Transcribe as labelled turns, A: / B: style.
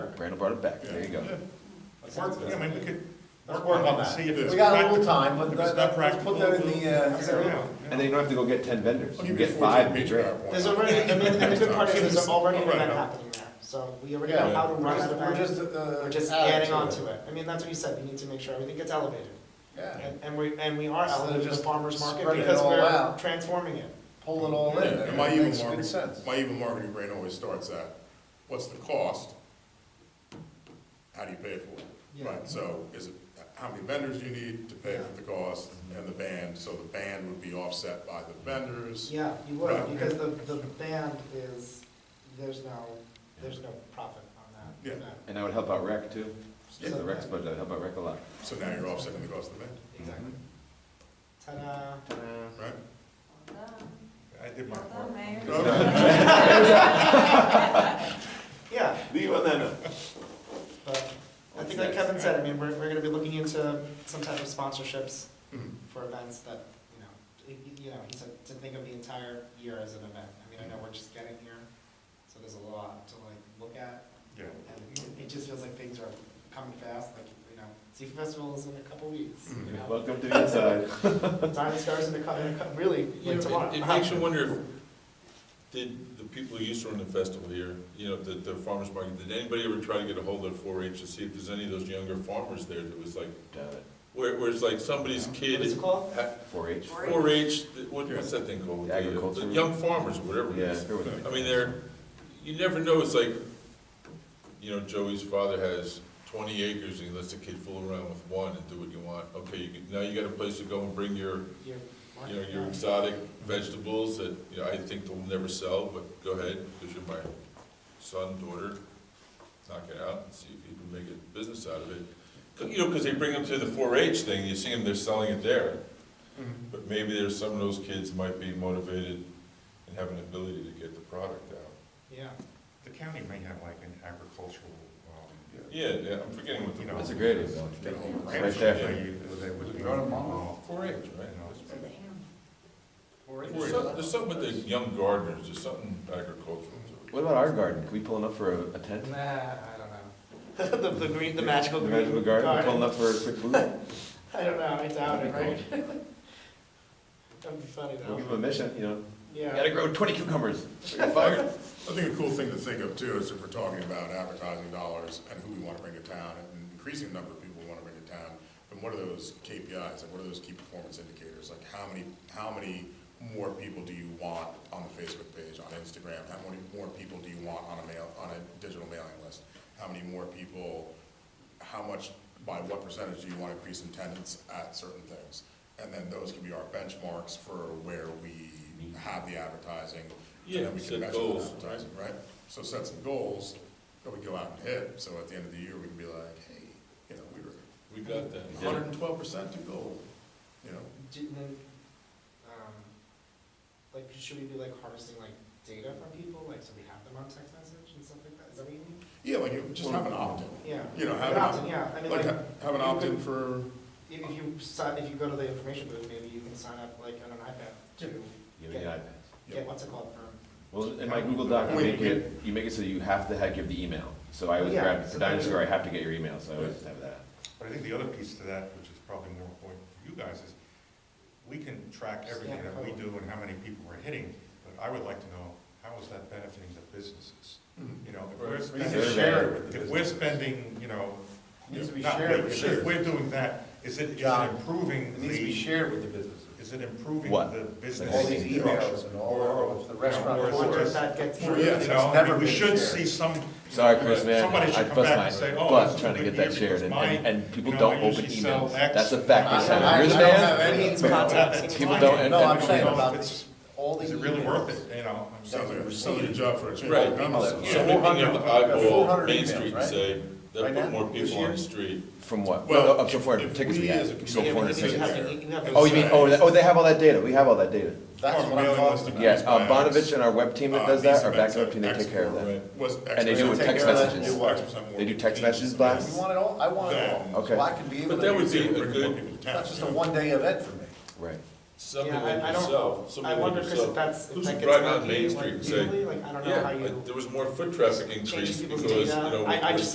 A: back, Brandon brought it back, there you go.
B: Work, I mean, we could,
C: Let's
B: work
C: work on
B: on it, see if
C: that.
B: it's.
C: We got a little
B: practical.
C: time, but
B: If
C: that-
B: it's not
C: let's put that in
B: practical,
C: the, uh,
B: we'll figure it out, you
A: And then you
B: know.
A: don't have to go get ten vendors,
D: I'll
A: you
D: give Oh,
A: get
D: you 14
A: five in
D: page
A: Durant.
D: PowerPoint.
E: There's already, and then, and the good part is, there's already an event
B: Right.
E: happening there, so we already
C: Yeah.
E: know how to run that
C: We're
E: event,
C: just, uh.
E: we're just
C: add
E: adding on to it. I mean, that's what you said, we need to make sure everything gets elevated,
C: Yeah,
E: and, and we, and we are
C: Instead of
E: elevating the
C: just
E: farmer's market
C: spreading it
E: because
C: all
E: we're
C: out.
E: transforming it.
C: pull it all in,
D: Yeah,
C: that
D: and my evil
C: makes good
D: marketing,
C: sense.
D: my evil marketing brain always starts at, what's the cost? How do you pay for it?
E: Yeah.
D: Right, so is it, how many vendors do you need to pay for the cost and the band? So the band would be offset by the vendors.
E: Yeah, you would,
D: Right.
E: because the, the band is, there's no, there's no profit on that
D: Yeah.
E: event.
A: And that would help out rec too,
D: Yeah.
A: the rec's budget, that'd help out rec a lot.
D: So now you're offsetting the cost of the band,
E: Exactly. Ta-da.
D: right?
B: I did my part.
E: Yeah,
A: Leave on that note.
E: but I think like
A: What's
E: Kevin
A: next?
E: said, I mean, we're, we're gonna be looking into some type of sponsorships
D: Mhm.
E: for events that, you know, y- y- you know, he said to think of the entire year as an event. I mean, I know we're just getting here, so there's a lot to like look at.
B: Yeah.
E: And it just feels like things are coming fast, like, you know, Seafood Festival is in a couple weeks, you
F: Mm-hmm.
E: know.
A: Welcome to the inside.
E: Diamond Stars in a couple, really,
F: You
E: like
F: know,
E: tomorrow.
F: It it makes you wonder if, did the people who used to run the festival here, you know, the, the farmer's market, did anybody ever try to get a hold of four H to see if there's any of those younger farmers there that was like, where, where it's like somebody's kid.
E: What is it called?
A: Four H.
F: Four H, what, what's that thing called? The, uh, the
A: Agriculture.
F: Young farmers, or whatever it
A: Yeah.
F: is. I mean, they're, you never know, it's like, you know, Joey's father has twenty acres and he lets the kid fool around with one and do what you want. Okay, you, can- now you got a place to go and bring
E: Your
F: your you know,
E: market,
F: your
E: yeah.
F: exotic vegetables that, you know, I think they'll never sell, but go ahead, because you're my son, daughter, knock it out and see if you can make a business out of it. 'Cause, You know, because they bring them to the four-H thing, you see them, they're selling it there. But maybe there's some of those kids might be motivated and have an ability to get the product out.
E: Yeah.
B: The county may have like an agricultural, um,
F: Yeah, yeah, I'm forgetting what the.
B: you know.
A: That's a great idea.
B: they-
A: Right there.
B: they- they would be involved.
F: Four-H, right? There's
B: Four-H.
F: some- There's something with the young gardeners, there's something agricultural to it.
A: What about our garden? Can we pull enough for a a tent?
E: Nah, I don't know. The, the green, the magical
A: The
E: green.
A: Magical garden, we pull enough for a quick booth?
E: I don't know, I doubt it, right? That'd be funny
A: We'll give
E: though.
A: them a mission, you know?
E: Yeah.
A: Gotta grow twenty cucumbers. You're fired.
D: I think a cool thing to think of too is if we're talking about advertising dollars and who we want to bring to town and an increasing number of people we want to bring to town, then what are those KPIs? Like what are those key performance indicators? Like how many, how many more people do you want on the Facebook page, on Instagram? How many more people do you want on a mail, on a digital mailing list? How many more people, how much, by what percentage do you want to increase attendance at certain things? And then those can be our benchmarks for where we have the advertising. and then
F: Yeah,
D: we can
F: set
D: measure the
F: goals,
D: advertising advertising, right? So set some goals that we go out and hit, so at the end of the year, we can be like, hey, you know, we were
F: We got that.
D: hundred and twelve percent to goal, you know?
E: Do- and then, um, Like, should we be like harvesting like data from people, like, so we have them on text message and stuff like that, is that what you mean?
D: Yeah, like, you just have an opt-in,
E: Yeah.
D: you know, have
E: An
D: an
E: opt-in,
D: opt-in,
E: Yeah, I mean,
D: like, uh,
E: like,
D: ha- have an
E: you
D: opt-in
E: could-
D: for,
E: if if you sign, if you go to the information booth, maybe you can sign up like on an iPad to
A: Give me the iPads.
D: Yeah.
E: get, what's it called, for,
A: Well, in my Google Doc, you make
D: Wait,
A: it, you make it so you have to have, give the email. So I always
E: Yeah,
A: grab,
E: so
A: for Diamond
E: that's-
A: Square, I have to get your email, so I always have that.
B: But I think the other piece to that, which is probably more important for you guys, is we can track everything that we do and how many people we're hitting, but I would like to know, how is that benefiting the businesses?
C: Mm-hmm.
B: You know, if we're
F: Right.
B: spending,
A: Survey.
B: if we're spending, you know,
C: Needs to be
B: not
C: shared
B: we,
C: with
B: if
C: the business.
B: we're doing that, is it, is it
C: John,
B: improving
C: It needs to be
B: the,
C: shared with the businesses.
B: is it improving
A: What?
B: the business?
C: All these emails and all, all of the restaurant
B: Or is it
E: or
C: boards.
B: just-
E: that gets.
D: Sure,
B: You
D: yeah.
B: know, I
C: never
B: mean, we
C: been
B: should
C: shared.
B: see some.
A: Sorry, Chris, man,
B: Somebody
A: I
B: should come back and
A: bust
B: say,
A: my
B: oh.
A: butt
B: this
A: trying to
B: is a
A: get
B: good
A: that
B: idea
A: shared, and,
B: because
A: and
B: mine,
A: and people
B: you know, I
A: don't open
B: usually sell
A: emails.
B: X
A: That's a fact, my
C: I-
A: son.
C: I-
A: You're the
C: I don't have
A: man.
C: any-
E: It's
B: But
E: contact.
B: that's
A: People
B: fine.
A: don't- and-
C: No, I'm
A: and-
C: saying
B: It's-
C: about this, all the.
B: Is it really worth
C: emails.
B: it, you know? I mean,
D: sounds like a,
B: it's-
D: sounds like a job for a change
F: Right.
D: of government.
F: So
D: Yeah.
F: we're going to eyeball
C: 400
F: Main
C: emails,
F: Street and
C: right?
F: say, that
C: Right
F: put
C: now,
F: more
C: this
F: people on
C: year?
F: the street.
A: From what?
D: Well,
A: No, Up to four
D: if
A: hundred tickets we
D: we
A: had.
D: as a
A: You
D: community-
A: sold four hundred
D: Yeah, but
A: tickets.
D: you have-
A: Oh, you mean, oh, that- oh, they have all that data, we have all that data.
C: That's
D: Or
C: what I'm
D: mailing
C: talking
D: list
C: about.
D: of-
A: Yes, uh, Bonovich and our web team that
D: Uh,
A: does that,
D: these
A: our
D: events
A: backup
D: are
A: team, they take care of
D: X more,
A: that.
F: Right.
D: Was X
A: And they do it with
D: percent-
A: text
C: Take care of that,
A: messages.
C: do what?
D: X percent more
A: They do text
D: meetings.
A: messages
C: We
A: blasts.
C: want it all, I want it all,
A: Okay.
C: so I can be able to.
F: But that would
C: use
F: be
C: it.
F: a
D: Bring more people
F: good,
D: to
C: It's not
D: town,
C: just
D: you
C: a
D: know?
C: one-day event for me.
A: Right.
F: something
E: Yeah, I-
F: like
E: I don't-
F: yourself,
E: I
F: something like
E: wonder, Chris, if
F: yourself.
E: that's, if
F: Who's
E: that
F: driving
E: gets
F: on Main
E: repeated,
F: Street
E: like
F: and say,
E: daily, like, I don't know
F: Yeah,
E: how
F: I-
E: you
F: there was more foot traffic increase
E: change people's
F: because, you
E: data.
F: know.
E: I, I
F: we're-
E: just